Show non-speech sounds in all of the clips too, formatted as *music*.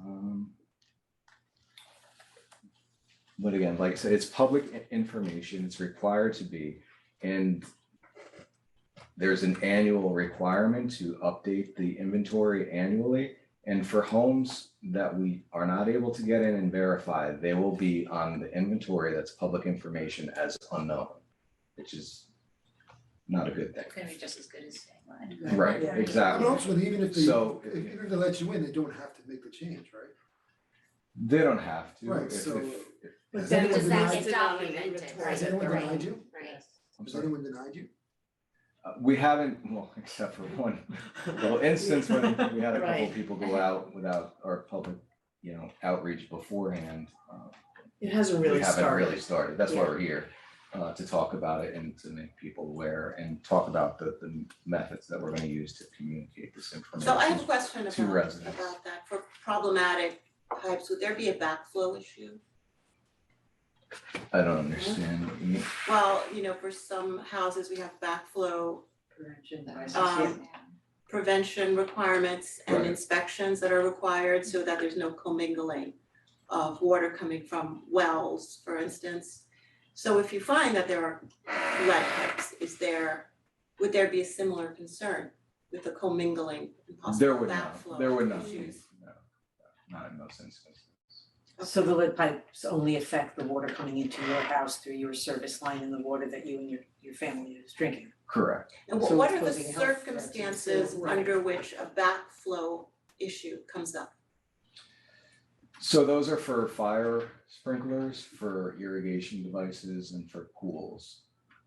Um, but again, like I said, it's public i- information, it's required to be, and there's an annual requirement to update the inventory annually. And for homes that we are not able to get in and verify, they will be on the inventory that's public information as unknown, which is not a good thing. It's gonna be just as good as staying line. Mm-hmm. Right, Yeah. But exactly. also, even if they, So- if- even if they let you in, they don't have to make the change, right? They don't have to. Right, if- so- if- if- Has then anyone does that denied, get- has Right, anyone right. denied you? Right. I'm Has sorry. anyone denied you? Uh, We haven't, *laughs* well, except for one *laughs* little instance when we had a couple of people go out without our public, you know, outreach beforehand. uh, It hasn't We really haven't really started. started. That's why Yeah. we're here, uh, to talk about it and to make people aware and talk about the, the methods that we're gonna use to communicate this information. So I have a question to about residents. about that, for problematic pipes, would there be a backflow issue? I don't understand. what you mean. Well, you know, for some houses, we have backflow Um, prevention requirements and Right. inspections that are required so that there's no commingling of water coming from wells, for instance. So if you find that there are lead pipes, is there, would there be a similar concern with the commingling and There possible would not, backflow there would not be, issues? no, not in those instances. So the lead pipes only affect the water coming into your house through your service line and the water that you and your your family is drinking. Correct. And what So what it's are the causing health threats and so- circumstances right. under which a backflow issue comes up? So those are for fire sprinklers, for irrigation devices and for pools.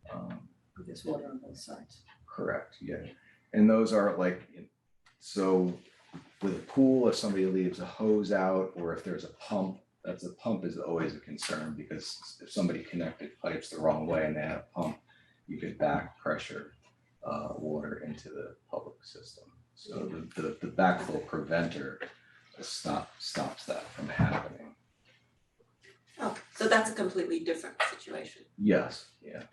Um, There's water on both sides. Correct, yeah. And those are like, so with a pool, if somebody leaves a hose out or if there's a pump, that's a pump is always a concern because if somebody connected pipes the wrong way and they had a pump, you could back pressure uh, water into the public system. So the, the, the backflow preventer stop, stops that from happening. Oh, so that's a completely different situation. Yes, yeah.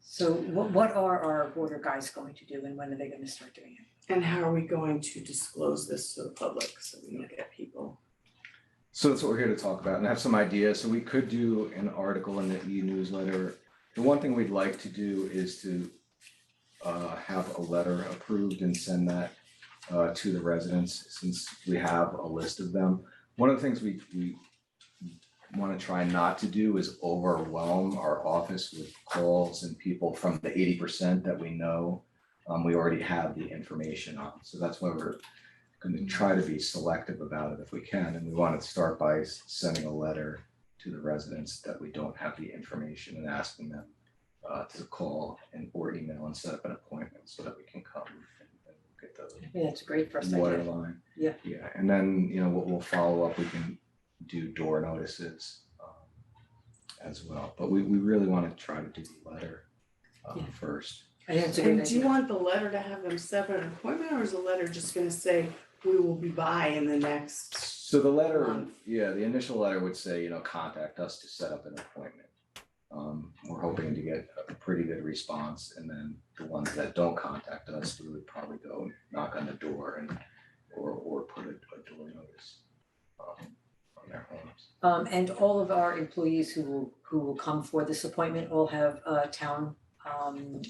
So what what are our water guys going to do and when are they gonna start doing it? And how are we going to disclose this to the public so we don't get people? So that's what we're here to talk about and I have some ideas. So we could do an article in the e-newsletter. The one thing we'd like to do is to uh, have a letter approved and send that uh, to the residents since we have a list of them. One of the things we, we want to try not to do is overwhelm our office with calls and people from the eighty percent that we know um, we already have the information on. So that's why we're going to try to be selective about it if we can. And we want to start by s- sending a letter to the residents that we don't have the information and asking them uh, to call and or email and set up an appointment so that we can come and and get the I think that's a great first idea. water line. Yeah. Yeah, and then, you know, what we'll follow up, we can do door notices um, as well. But we, we really want to try to do the letter um, Yeah. first. I think that's a And great do you idea. want the letter to have them set an appointment or is the letter just gonna say, we will be by in the next? So the letter, Month. yeah, the initial letter would say, you know, contact us to set up an appointment. Um, we're hoping to get a pretty good response, and then the ones that don't contact us, we would probably go knock on the door and, or, or put a, a door notice um, on their homes. Um and all of our employees who will who will come for this appointment all have uh town um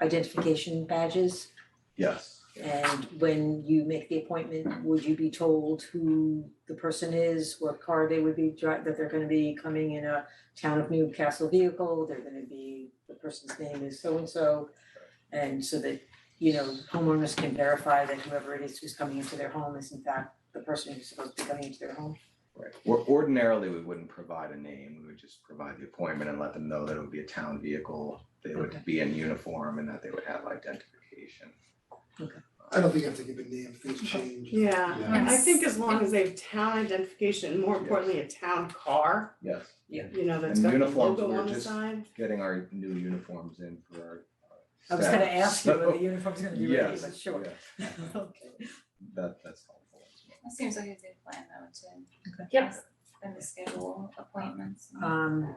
identification badges. Yes. And when you make the appointment, would you be told who the person is, what car they would be driving, that they're gonna be coming in a town of Newcastle vehicle, they're gonna be, the person's name is so and so. And so that, you know, homeowners can verify that whoever it is who's coming into their home is in fact the person who's supposed to be coming into their home. Right. Or ordinarily, we wouldn't provide a name. We would just provide the appointment and let them know that it would be a town vehicle. They would Okay. be in uniform and that they would have identification. I don't think you have to give a name, things change. Yeah, Yeah. I think as long as they have town identification, and more Yes. importantly, a town car, Yes. you know, that's And got the uniforms logo were on the just- side. getting our new uniforms in for our. uh, I was gonna staff, ask you *laughs* whether so- the uniform's gonna be ready, Yes, *laughs* but sure. yes. *laughs* Okay. That, that's helpful as well. That seems like a good plan though to. Okay. Yep. And the schedule appointments. and- Um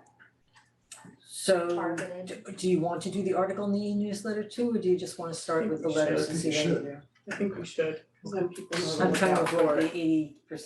so targeted. do do you want to do the article in the e-newsletter too, or do you just wanna start with the I letters and think see we how you do? should. I think we should, cause then people know to I'm look trying to out for avoid it. the eighty percent